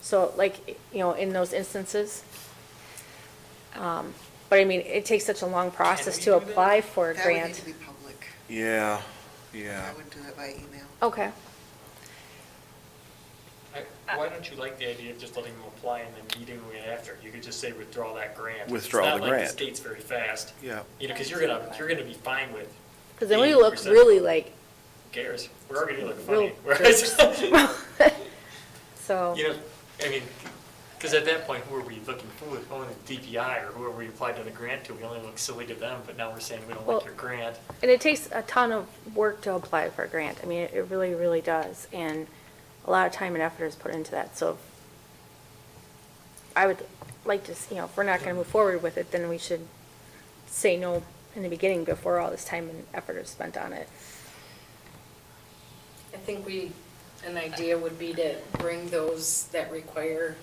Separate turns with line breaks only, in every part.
So like, you know, in those instances. Um, But I mean, it takes such a long process
we
to
do that?
apply for a
That would need
grant.
to be public.
Yeah, yeah.
I would do it by email.
Okay,
I- Why don't you like the idea of just letting them apply and then meeting after? You could just say withdraw that grant.
Withdraw the
It's not like
grant.
the state's very fast,
Yeah,
you know, because you're gonna, you're gonna be fine with,
because then we look really like,
who cares, we're already gonna look
Real
funny. Whereas,
so,
You know, I mean, because at that point, who are we looking for? Only the DPI or whoever we applied to the grant to, we only look silly to them, but now we're saying we don't
Well-
like your grant.
and it takes a ton of work to apply for a grant. I mean, it it really, really does. And a lot of time and effort is put into that, so I would like to, see, you know, if we're not going to move forward with it, then we should say no in the beginning before all this time and effort is spent on it.
I think we, an idea would be to bring those that require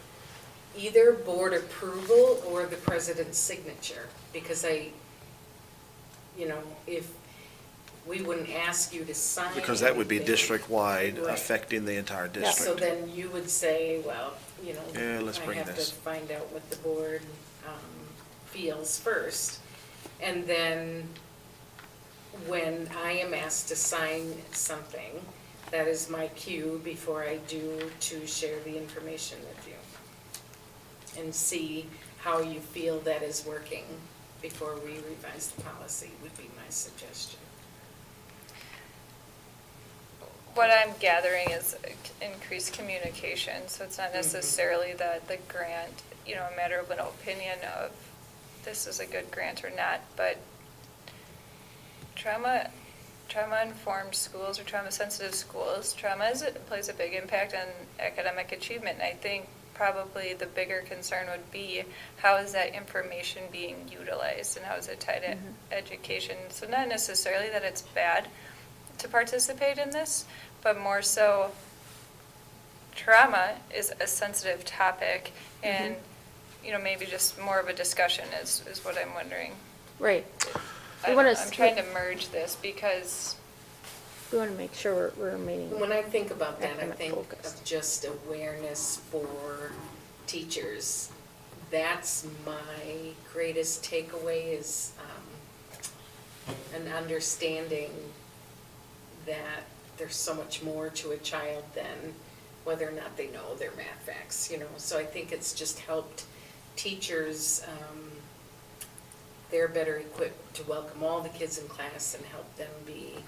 either board approval or the president's signature, because I, you know, if, we wouldn't ask you to sign.
because that would be
anything.
district-wide
Right.
affecting the entire
Yeah.
So
district.
then you would say, well, you know,
Yeah, let's
I
bring
have to
this.
find out what the board um, feels first. And then when I am asked to sign something, that is my cue before I do to share the information with you. And see how you feel that is working before we revise the policy would be my suggestion.
What I'm gathering is increased communication, so it's not necessarily that the grant, you know, a matter of an opinion of this is a good grant or not, but trauma, trauma-informed schools or trauma-sensitive schools, trauma is, plays a big impact on academic achievement. And I think probably the bigger concern would be how is that information being utilized and how is it tied to education? So not necessarily that it's bad to participate in this, but more so trauma is a sensitive topic and, you know, maybe just more of a discussion is, is what I'm wondering.
Right.
I
We
don't
wanna
know,
s-
I'm trying to merge this because,
We want to make sure we're- we're remaining.
When I think about that, I
Academic
think
focused.
of just awareness for teachers. That's my greatest takeaway is um, an understanding that there's so much more to a child than whether or not they know their math facts, you know? So I think it's just helped teachers, um, they're better equipped to welcome all the kids in class and help them be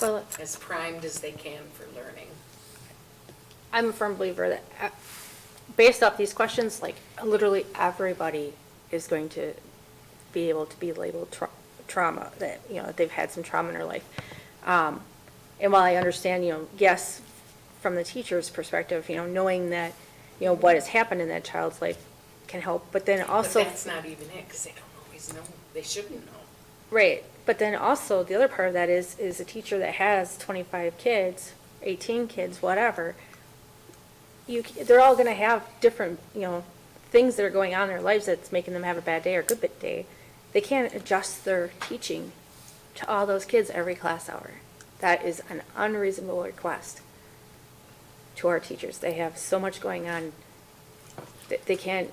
Well,
as primed as they can for learning.
I'm a firm believer that, uh, based off these questions, like, literally everybody is going to be able to be labeled tra- trauma, that, you know, they've had some trauma in their life. Um, And while I understand, you know, yes, from the teacher's perspective, you know, knowing that, you know, what has happened in that child's life can help, but then also.
But that's not even it, because they don't always know, they shouldn't know.
Right, but then also, the other part of that is, is a teacher that has twenty-five kids, eighteen kids, whatever, you, c- they're all gonna have different, you know, things that are going on in their lives that's making them have a bad day or good bit day. They can't adjust their teaching to all those kids every class hour. That is an unreasonable request to our teachers. They have so much going on, that they can't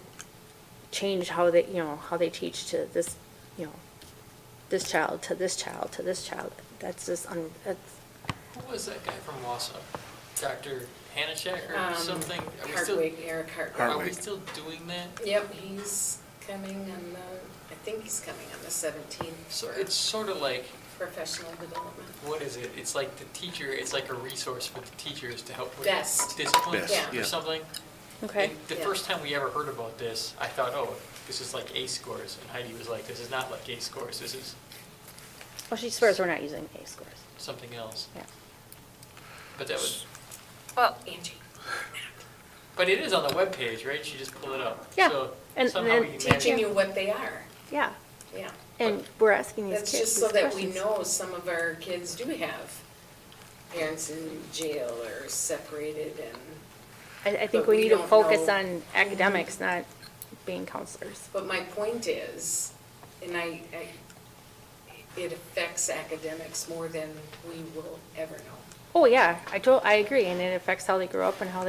change how they, you know, how they teach to this, you know, this child to this child to this child. That's just un- that's,
Who was that guy from Wausau? Dr. Hanachek
Um,
or something? Are we still,
Hardwick, Eric
are we
Hardwick.
Hardwick.
still doing that?
Yep, he's coming on the, I think he's coming on the seventeenth
So
for
it's sort of like,
professional development.
what is it? It's like the teacher, it's like a resource for the teachers to help with
Best.
discipline
Best,
Yeah.
or
yeah.
something.
okay.
And The
Yeah.
first time we ever heard about this, I thought, oh, this is like A scores. And Heidi was like, this is not like A scores, this is
Well, she swears we're not using A scores.
something else.
Yeah.
But that was,
well,
Angie,
but it is on the webpage, right? She just pulled it up.
Yeah.
So
And- and
somehow
then
we managed-
teaching you what they are,
Yeah,
yeah.
and we're asking these
That's
kids
just so
these
that we
questions.
know some of our kids do have parents in jail or separated and,
I, I think
but
we
we
need to
don't
focus
know.
on academics, not being counselors.
but my point is, and I, I, it affects academics more than we will ever know.
Oh, yeah, I told, I agree, and it affects how they grow up and how they